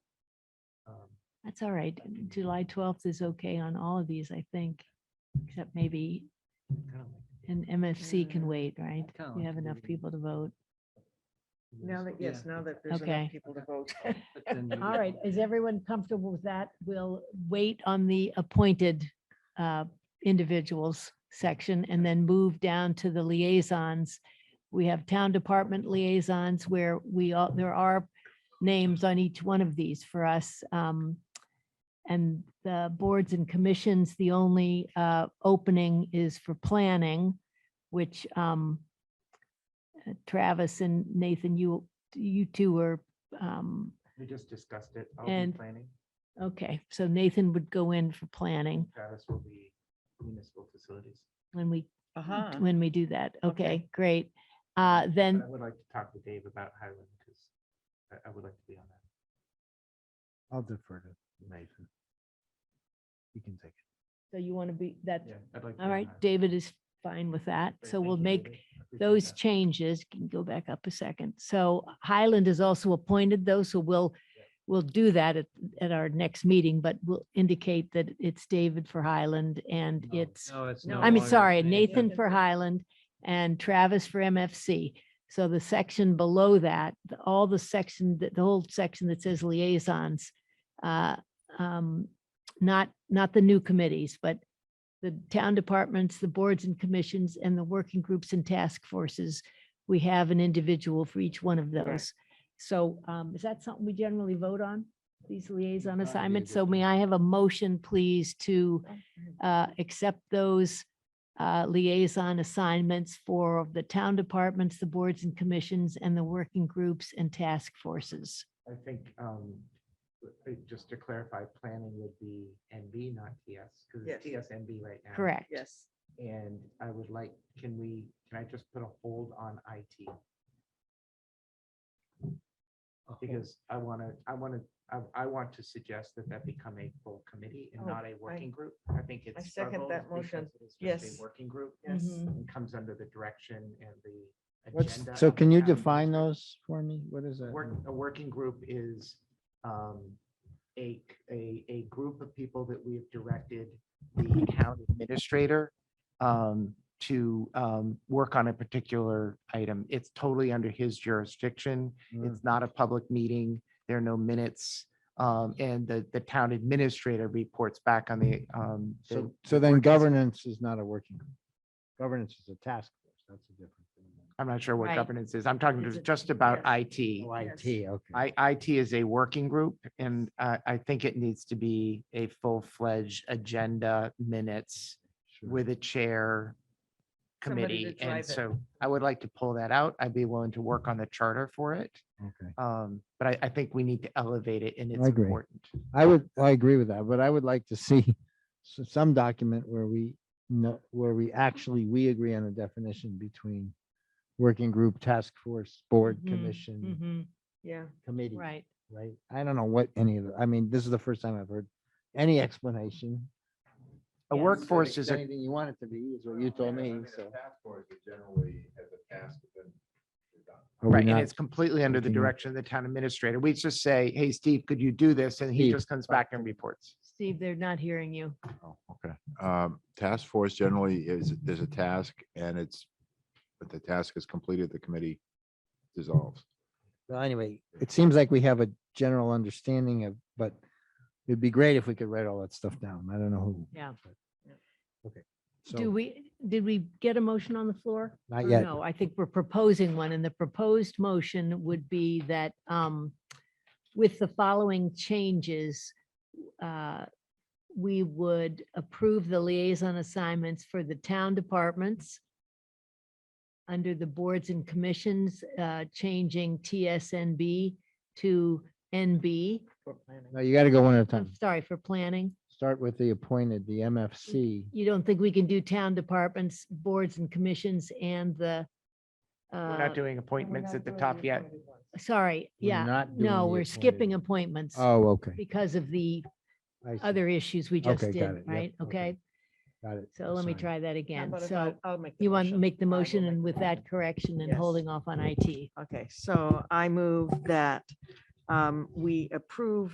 um, That's all right. July twelfth is okay on all of these, I think, except maybe an MFC can Mm, wait, right? Oh, kinda We like have the enough meeting. people to vote. Now that, yes, now that there's Okay. enough people to vote. All right, is everyone comfortable with that? We'll wait on the appointed uh, individuals section and then move down to the liaisons. We have town department liaisons where we all, there are names on each one of these for us. um, And the boards and commissions, the only uh, opening is for planning, which um, uh, Travis and Nathan, you, you two are um, We just discussed it. I'll And- be planning. Okay, so Nathan would go in for planning Travis will be municipal facilities. when we, Uh-huh. when we do that. Okay. Okay, great. Uh, then, But I would like to talk to Dave about Highland because I, I would like to be on that. I'll defer to Nathan. You can take so you want to be, that's, Yeah, I'd like. to be all on right, Highland. David is fine with that. Great, So thank we'll you, make David. I appreciate those that. changes. Can you go back up a second. So Highland is also appointed though, so we'll, we'll do that at, at our next meeting, but we'll indicate that it's David for Highland and Oh, it. it's No, it's no no I mean, longer sorry, Nathan. Nathan Nathan for for- Highland and Travis for MFC. So the section below that, the- all the section, that the whole section that says liaisons, uh, um, not, not the new committees, but the town departments, the boards and commissions, and the working groups and task forces, we have an individual for each one of those. So um, is that something we generally vote on, these liaison Not assignments? So individually. may I have a motion, please, to uh, accept those uh, liaison assignments for the town departments, the boards and commissions, and the working groups and task forces. I think, um, uh, just to clarify, planning would be NB, not TS, because Yes. it's TSNB right now. Correct? Yes. And I would like, can we, can I just put a hold on IT? A whole- Because I want to, I want to, I, I want to suggest that that become a full committee and Oh, not a working group. I think it's. second struggled that motion. because it is just a Yes. Working group Yes. Mhm. and comes under the direction and the. What's, agenda so of the can you town define administrator. those for me? What is that? Work, mean? a working group is um, a, a, a group of people that we've directed the town administrator um, to um, work on a particular item. It's totally under his jurisdiction. Mm. It's not a public meeting. There are no minutes. um, And the, the town administrator reports back on the. um, the- So, the so then work- governance is not a working, group. governance is a task force. That's a different thing. I'm not sure what Right. governance is. I'm talking It's a- just about IT. Yes. IT, okay. Oh, I, IT is a working group and I, I think it needs to be a full-fledged agenda minutes Sure. with a chair Somebody to committee. And drive it. so I would like to pull that out. I'd be willing to work on the charter for it. Okay. Um, but I, I think we need to elevate it and it's I agree. important. I would, I agree with that, but I would like to see s- some document where we know, where we actually, we agree on a definition between working group, task force, board, Mhm, commission, Mm-hmm. Yeah. committee. Right. Right? I don't know what any of the, I mean, this is the first time I've heard any explanation. A Yes. workforce is a, Anything you want it to be is what you told me, so. Task force is generally as a task within. Are we right, and not- it's completely under the looking at- direction of the town administrator. We just say, hey, Steve, could you do this? And he Steve, just comes back and reports. Steve, they're not hearing you. Oh, okay. Um, task force generally is, there's a task and it's, but the task is completed, the committee dissolves. Well, anyway, it seems like we have a general understanding of, but it'd be great if we could write all that stuff down. I don't know who. Yeah. but- Okay. Do So, we, did we get a motion on the floor? not or yet. No, I think we're proposing one, and the proposed motion would be that um, with the following changes, uh, we would approve the liaison assignments for the town departments under the boards and commissions, uh, changing TSNB to NB, for planning. No, you got to go one at a I'm time. sorry, for planning. Start with the appointed, the MFC. You don't think we can do town departments, boards and commissions and the, We're uh, not doing appointments at the top yet. sorry, We're yeah. not doing No, the we're appointed. skipping appointments Oh, okay. because of the I see. other issues we just Okay, got it. did, Yep, right? okay. Okay, Got it. so let me Sorry. try that How again. about if So I'll- I'll make the you want to motion? make the I will motion make and the with motion. that correction and Yes. holding off on IT. Okay, so I move that um, we approve